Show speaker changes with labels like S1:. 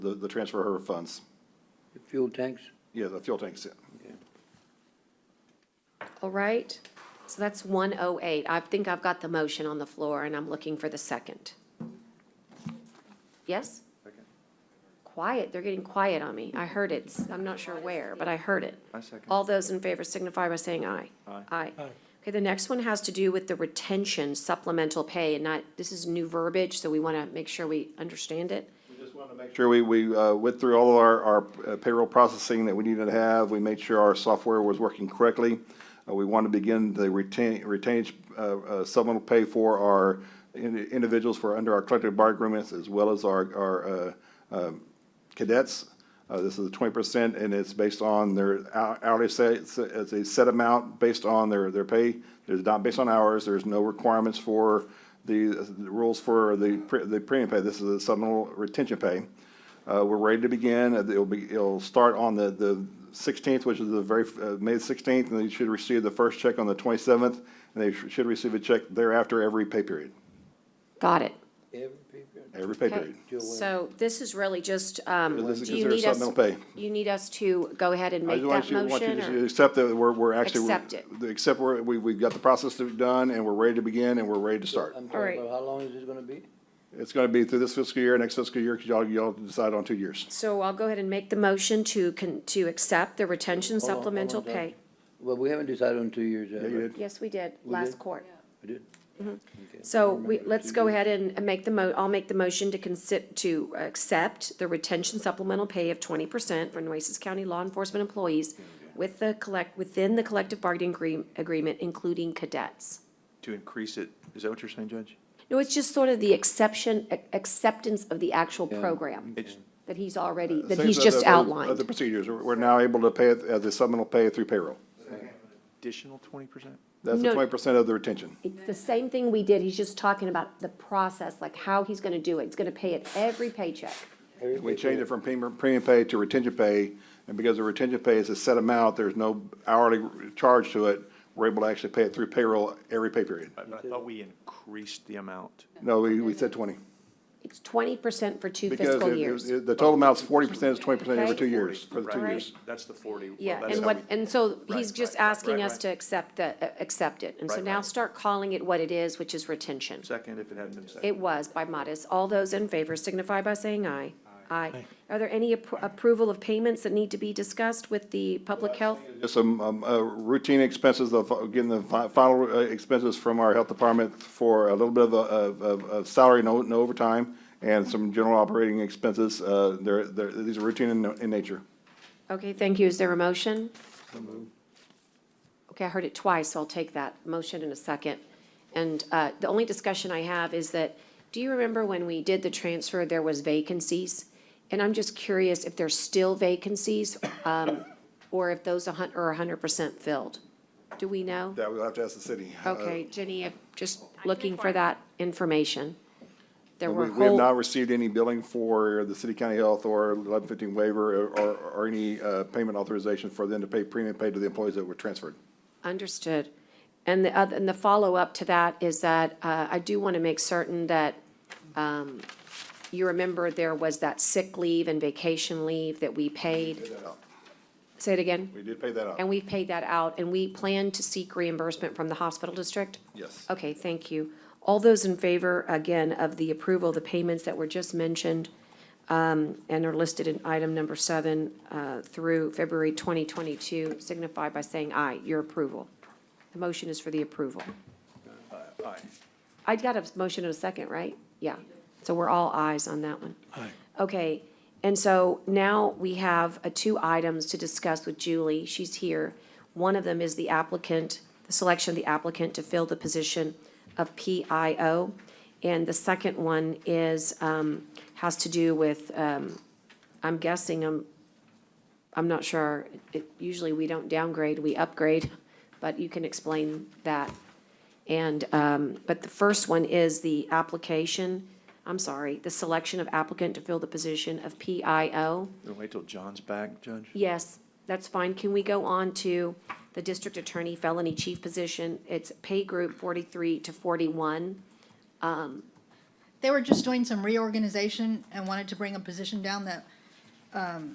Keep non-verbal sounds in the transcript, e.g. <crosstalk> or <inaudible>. S1: the, the transfer of her funds.
S2: The fuel tanks?
S1: Yeah, the fuel tanks, yeah.
S3: All right, so that's 108. I think I've got the motion on the floor, and I'm looking for the second. Yes? Quiet, they're getting quiet on me. I heard it, I'm not sure where, but I heard it.
S4: I second.
S3: All those in favor signify by saying aye.
S4: Aye.
S3: Aye. Okay, the next one has to do with the retention supplemental pay, and not, this is new verbiage, so we want to make sure we understand it.
S1: Make Sure, we, we uh, went through all of our, our payroll processing that we needed to have. We made sure our software was working correctly. Uh, We want to begin the retain, retainage, uh, uh, supplemental pay for our in- individuals for under our collective bargaining agreements as well as our, our uh, um, cadets. Uh, This is twenty percent and it's based on their hou- hourly set, it's a- it's a set amount based on their, their pay. It's not based on hours. There's no requirements for the the rules for the, pre- the premium pay. This is a supplemental retention pay. Uh, we're ready to begin. Uh, It'll be, it'll start on the, the sixteenth, which is the very, uh, May sixteenth, and they should receive the first check on the twenty-seventh, and they sh- should receive a check thereafter every pay period,
S3: Got it.
S2: Every people?
S1: every pay
S3: Okay,
S1: period.
S3: so this is really just, um,
S1: So this is
S3: do you need
S1: considered
S3: us,
S1: supplemental
S3: you need us to go ahead and
S1: I
S3: make
S1: just
S3: that
S1: want you, want you
S3: motion?
S1: to
S3: or-
S1: accept that we're, we're actually.
S3: Accept it.
S1: Accept we're, we, we've got the process to be done, and we're ready to begin, and we're ready to start.
S2: I'm
S3: All right.
S2: talking about, how long is this gonna be?
S1: It's gonna be through this fiscal year, next fiscal year, because y'all, y'all decide on two years.
S3: So I'll go ahead and make the motion to, con- to accept the retention
S2: Hold on, hold on,
S3: supplemental
S2: Doug.
S3: pay.
S2: Well, we haven't decided on two years yet.
S1: Yeah, you
S2: right?
S1: did.
S3: Yes, we did,
S2: We
S3: last
S2: did?
S3: court.
S2: We did? Okay.
S3: So
S2: I
S3: we,
S2: remember
S3: let's
S2: two
S3: go
S2: years.
S3: ahead and and make the mo, I'll make the motion to consi, to accept the retention supplemental pay of twenty percent for Nueces County law enforcement employees with the collect, within the collective bargaining agree, agreement, including cadets.
S4: To increase it, is that what you're saying, Judge?
S3: No, it's just sort of the exception, ac- acceptance of the actual program
S4: It's, Uh,
S3: that he's already, that
S1: Same
S3: he's
S1: as
S3: just
S1: the-
S3: outlined.
S1: Of the procedures, we're we're now able to pay it as a supplemental pay through payroll.
S4: additional twenty percent?
S1: That's
S3: No.
S1: the twenty percent of the retention.
S3: It's the same thing we did, he's just talking about the process, like how he's gonna do it, he's gonna pay it every paycheck.
S2: Every
S1: We
S2: people-
S1: changed it from premium, premium pay to retention pay, and because the retention pay is a set amount, there's no hourly charge to it. We're able to actually pay it through payroll every pay period.
S4: I, I thought we increased the amount.
S1: No, we, we said twenty.
S3: It's twenty percent for two
S1: Because
S3: fiscal
S1: it-
S3: years.
S1: it- the total amount's forty percent, is twenty percent every
S3: Okay.
S1: two years, for
S4: Forty,
S1: the two
S4: right.
S1: years.
S4: That's the forty. Well,
S3: Yeah,
S4: that's
S3: and
S4: how
S3: what,
S4: we-
S3: and so he's
S4: Right,
S3: just
S4: right, right,
S3: asking
S4: right,
S3: us
S4: right.
S3: to accept the, uh, accept it, and so
S4: Right,
S3: now
S4: right.
S3: start calling it what it is, which is retention.
S4: Second, if it hadn't been second.
S3: It was by modest. All those in favor signify by saying aye. Aye. Are there any appro- approval of payments that need to be discussed with the public health?
S1: Just some, um, uh, routine expenses of, uh, getting the fi- final uh, expenses from our health department for a little bit of, uh, of, of, of salary, no, no overtime, and some general operating expenses, uh, they're, they're, these are routine in, in nature.
S3: Okay, thank you. Is there a motion? Okay, I heard it twice, so I'll take that motion in a second. And uh, the only discussion I have is that, do you remember when we did the transfer, there was vacancies? And I'm just curious if there's still vacancies, um, or if those a hun, are hundred percent filled? Do we know?
S1: That we'll have to ask the city. Uh,
S3: Okay, Jenny, I'm just looking for that information. There were
S1: We, we have not
S3: whole,
S1: received any billing for the city county health or eleven fifteen waiver or, or, or any, uh, payment authorization for them to pay premium pay to the employees that were transferred.
S3: understood. And the other, and the follow-up to that is that, uh, I do want to make certain that, um, you remember there was that sick leave and vacation leave that we paid. Say it again?
S1: We did pay that
S3: And
S1: out,
S3: we paid that out, and we plan to seek reimbursement from the hospital district?
S1: yes.
S3: Okay, thank you. All those in favor, again, of the approval, of the payments that were just mentioned, um, and are listed in item number seven, uh, through February 2022, signify by saying aye, your approval. The motion is for the approval.
S4: Aye.
S3: I got a motion in a second, right? Yeah. So we're all ayes on that one. Okay, and so now we have uh, two items to discuss with Julie. She's here. One of them is the applicant, the selection of the applicant to fill the position of PIO. And the second one is, um, has to do with, um, I'm guessing, I'm, I'm not sure. It- Usually we don't downgrade, we upgrade, <laughs> but you can explain that. And, um, but the first one is the application, I'm sorry, the selection of applicant to fill the position of PIO.
S4: Then Wait till John's back, Judge?
S3: Yes, that's fine. Can we go on to the district attorney felony chief position? It's pay group forty-three to forty-one. Um,
S5: They were just doing some reorganization and wanted to bring a position down that